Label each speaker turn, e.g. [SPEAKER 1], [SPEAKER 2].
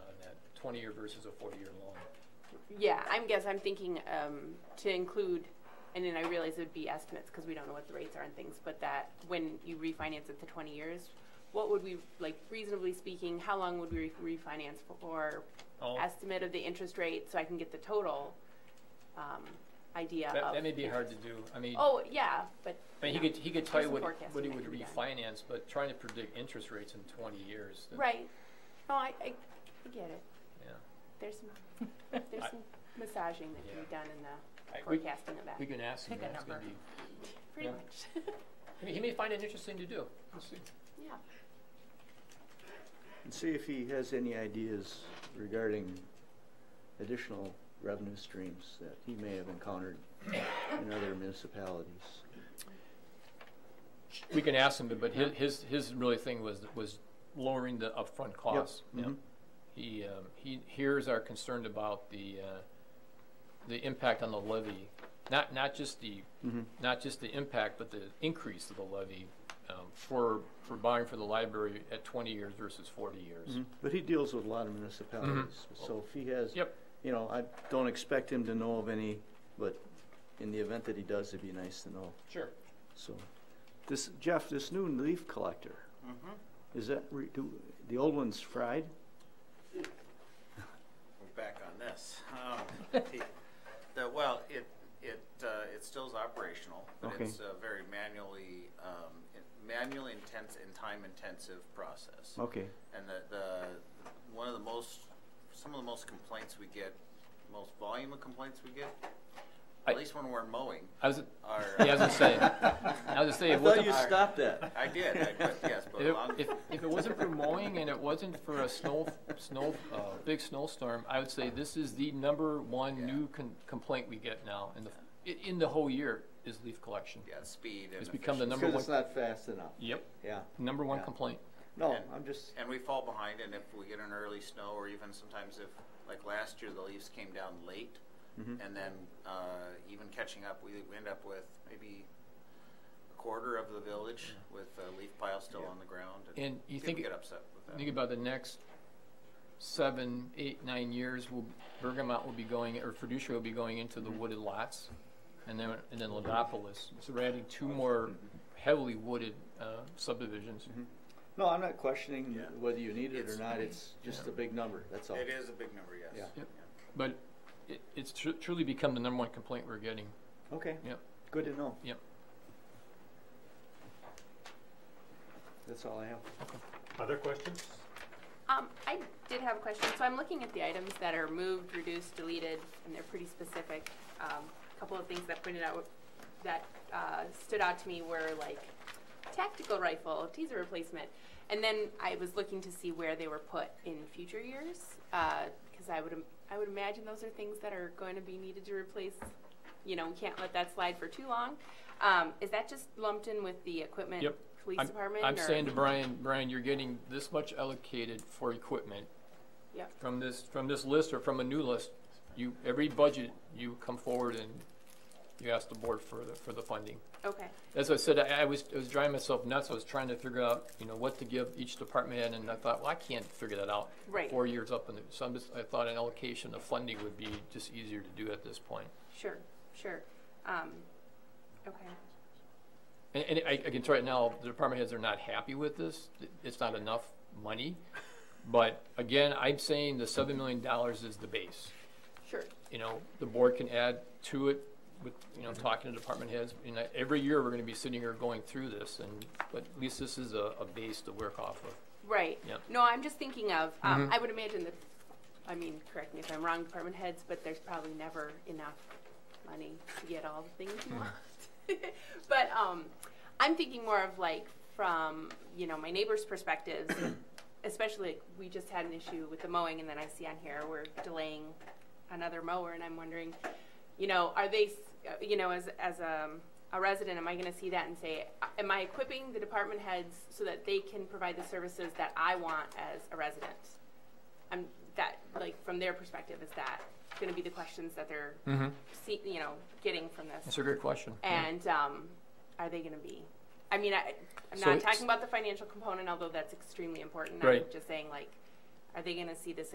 [SPEAKER 1] twenty-year versus a forty-year loan.
[SPEAKER 2] Yeah, I'm guess, I'm thinking, um, to include, and then I realize it would be estimates, cause we don't know what the rates are and things, but that when you refinance it to twenty years, what would we, like reasonably speaking, how long would we re- refinance for?
[SPEAKER 1] Oh.
[SPEAKER 2] Estimate of the interest rate, so I can get the total, um, idea of.
[SPEAKER 1] That, that may be hard to do, I mean, I
[SPEAKER 2] Oh, yeah, but.
[SPEAKER 1] mean, he
[SPEAKER 2] yeah.
[SPEAKER 1] could, he could tell you
[SPEAKER 2] There's
[SPEAKER 1] what,
[SPEAKER 2] some
[SPEAKER 1] what he
[SPEAKER 2] forecasting
[SPEAKER 1] would
[SPEAKER 2] that can be done.
[SPEAKER 1] refinance, but trying to predict interest rates in twenty years. that-
[SPEAKER 2] Right, no, I, I I get it,
[SPEAKER 1] Yeah.
[SPEAKER 2] there's some, there's
[SPEAKER 1] I-
[SPEAKER 2] some massaging that can
[SPEAKER 1] Yeah.
[SPEAKER 2] be done in the
[SPEAKER 1] I- we-
[SPEAKER 2] forecasting of that,
[SPEAKER 1] We can ask him,
[SPEAKER 3] Pick a
[SPEAKER 1] that. it's gonna
[SPEAKER 3] number.
[SPEAKER 1] be,
[SPEAKER 2] pretty
[SPEAKER 1] yeah.
[SPEAKER 2] much,
[SPEAKER 1] I mean, he may find it interesting to do, we'll see.
[SPEAKER 2] yeah.
[SPEAKER 4] And see if he has any ideas regarding additional revenue streams that he may have encountered in other municipalities.
[SPEAKER 1] We can ask him, but- but his, his, his really thing was, was lowering the upfront costs.
[SPEAKER 4] Yep,
[SPEAKER 1] Yeah.
[SPEAKER 4] mhm.
[SPEAKER 1] He, um, he hears our concern about the, uh, the impact on the levy, not, not just the,
[SPEAKER 4] Mhm.
[SPEAKER 1] not just the impact, but the increase of the levy, um, for, for buying for the library at twenty years versus forty years.
[SPEAKER 4] Mhm. But he deals with a lot of municipalities, so if he has,
[SPEAKER 1] Mm-hmm. Yep.
[SPEAKER 4] you know, I don't expect him to know of any, but in the event that he does, it'd be nice to know,
[SPEAKER 1] Sure.
[SPEAKER 4] so. This, Jeff, this new leaf collector, is that, re- do, the old one's fried?
[SPEAKER 5] We're back on this. Um, the- The, well, it, it, uh, it still is operational, but
[SPEAKER 4] Okay.
[SPEAKER 5] it's a very manually, um, in- manually intense and time-intensive process.
[SPEAKER 4] Okay,
[SPEAKER 5] And the, the, one of the most, some of the most complaints we get, most volume of complaints we get,
[SPEAKER 1] I-
[SPEAKER 5] at least when we're mowing,
[SPEAKER 1] I was,
[SPEAKER 5] are.
[SPEAKER 1] yeah, I was gonna say, I was gonna say,
[SPEAKER 4] I
[SPEAKER 1] it wasn't-
[SPEAKER 4] thought you stopped that.
[SPEAKER 5] I did, I, but yes, but
[SPEAKER 1] If,
[SPEAKER 5] along,
[SPEAKER 1] if, if it wasn't for mowing and it wasn't for a snow, snow, uh, big snowstorm, I would say this is the number one
[SPEAKER 5] Yeah.
[SPEAKER 1] new con- complaint we get now in the, i- in the whole year is leaf collection.
[SPEAKER 5] yeah, speed and
[SPEAKER 1] It's become the
[SPEAKER 5] efficiency.
[SPEAKER 1] number
[SPEAKER 4] Because
[SPEAKER 1] one,
[SPEAKER 4] it's not fast enough,
[SPEAKER 1] yep,
[SPEAKER 4] yeah.
[SPEAKER 1] number one
[SPEAKER 4] Yeah.
[SPEAKER 1] complaint.
[SPEAKER 4] No,
[SPEAKER 5] And-
[SPEAKER 4] I'm just,
[SPEAKER 5] And we fall behind, and if we get an early snow, or even sometimes if, like last year, the leaves came down late,
[SPEAKER 4] mm-hmm.
[SPEAKER 1] Mm-hmm.
[SPEAKER 5] and then uh, even catching up, we, we end up with maybe a quarter of the village with a leaf pile still on the ground.
[SPEAKER 1] And you
[SPEAKER 5] people
[SPEAKER 1] think-
[SPEAKER 5] get upset with
[SPEAKER 1] Think
[SPEAKER 5] that?
[SPEAKER 1] about the next seven, eight, nine years, will, Bergamot will be going, or Fiducia will be going into
[SPEAKER 5] Mm-hmm.
[SPEAKER 1] the wooded lots. And then, and then Ladopolis, so we're adding two more
[SPEAKER 5] Mm-hmm.
[SPEAKER 1] heavily wooded, uh, subdivisions.
[SPEAKER 4] no, I'm not questioning
[SPEAKER 5] Yeah.
[SPEAKER 4] whether you need it or
[SPEAKER 5] It's-
[SPEAKER 4] not, it's just a big number, that's all.
[SPEAKER 5] It is a big number, yes.
[SPEAKER 4] Yeah.
[SPEAKER 1] Oh. Yep. But it, it's tru- truly become the number one complaint we're getting.
[SPEAKER 4] Okay.
[SPEAKER 1] Yep.
[SPEAKER 4] Good to know.
[SPEAKER 1] Yep.
[SPEAKER 4] That's all I have.
[SPEAKER 6] Other questions?
[SPEAKER 2] Um, I did have a question. So I'm looking at the items that are moved, reduced, deleted, and they're pretty specific. Um, a couple of things that pointed out that uh, stood out to me were like tactical rifle, teaser replacement, and then I was looking to see where they were put in future years because I would im- I would imagine those are things that are going to be needed to replace. You know, we can't let that slide for too long. Um, is that just lumped in with the equipment
[SPEAKER 1] Yep.
[SPEAKER 2] police
[SPEAKER 1] I'm-
[SPEAKER 2] department?
[SPEAKER 1] I'm
[SPEAKER 2] or-
[SPEAKER 1] saying to Brian, Brian, you're getting this much allocated for equipment
[SPEAKER 2] Yep.
[SPEAKER 1] from this, from this list or from a new list. You, every budget, you come forward and you ask the board for the, for the funding.
[SPEAKER 2] Okay.
[SPEAKER 1] As I said, I, I was, I was driving myself nuts. I was trying to figure out, you know, what to give each department head and I thought, well, I can't figure that out.
[SPEAKER 2] Right.
[SPEAKER 1] Four years up in the, so I'm just, I thought an allocation of funding would be just easier to do at this point.
[SPEAKER 2] Sure, sure. Um, okay,
[SPEAKER 1] And, and I, I can tell you right now, the department heads are not happy with this. It's not enough money. But again, I'm saying the seven million dollars is the base.
[SPEAKER 2] sure.
[SPEAKER 1] You know, the board can add to it with, you know, talking to department heads. You know, every year, we're gonna be sitting here going through this and, but at least this is a, a base to work off of.
[SPEAKER 2] Right.
[SPEAKER 1] Yep.
[SPEAKER 2] No, I'm just thinking of, um, I would imagine that, I mean, correct me if I'm wrong, department heads, but there's probably never enough money to get all the things you want. But, um, I'm thinking more of like from, you know, my neighbor's perspective, especially we just had an issue with the mowing and then I see on here we're delaying another mower and I'm wondering, you know, are they, s- uh, you know, as, as a, a resident, am I gonna see that and say, uh, am I equipping the department heads so that they can provide the services that I want as a resident? I'm, that, like, from their perspective, is that gonna be the questions that they're,
[SPEAKER 1] Hmm.
[SPEAKER 2] see, you know, getting from this?
[SPEAKER 1] That's a good question. Yeah.
[SPEAKER 2] And, um, are they gonna be, I mean, I, I'm
[SPEAKER 1] So
[SPEAKER 2] not
[SPEAKER 1] it's-
[SPEAKER 2] talking about the financial component, although that's extremely important. I'm
[SPEAKER 1] Right.
[SPEAKER 2] just saying, like, are they gonna see this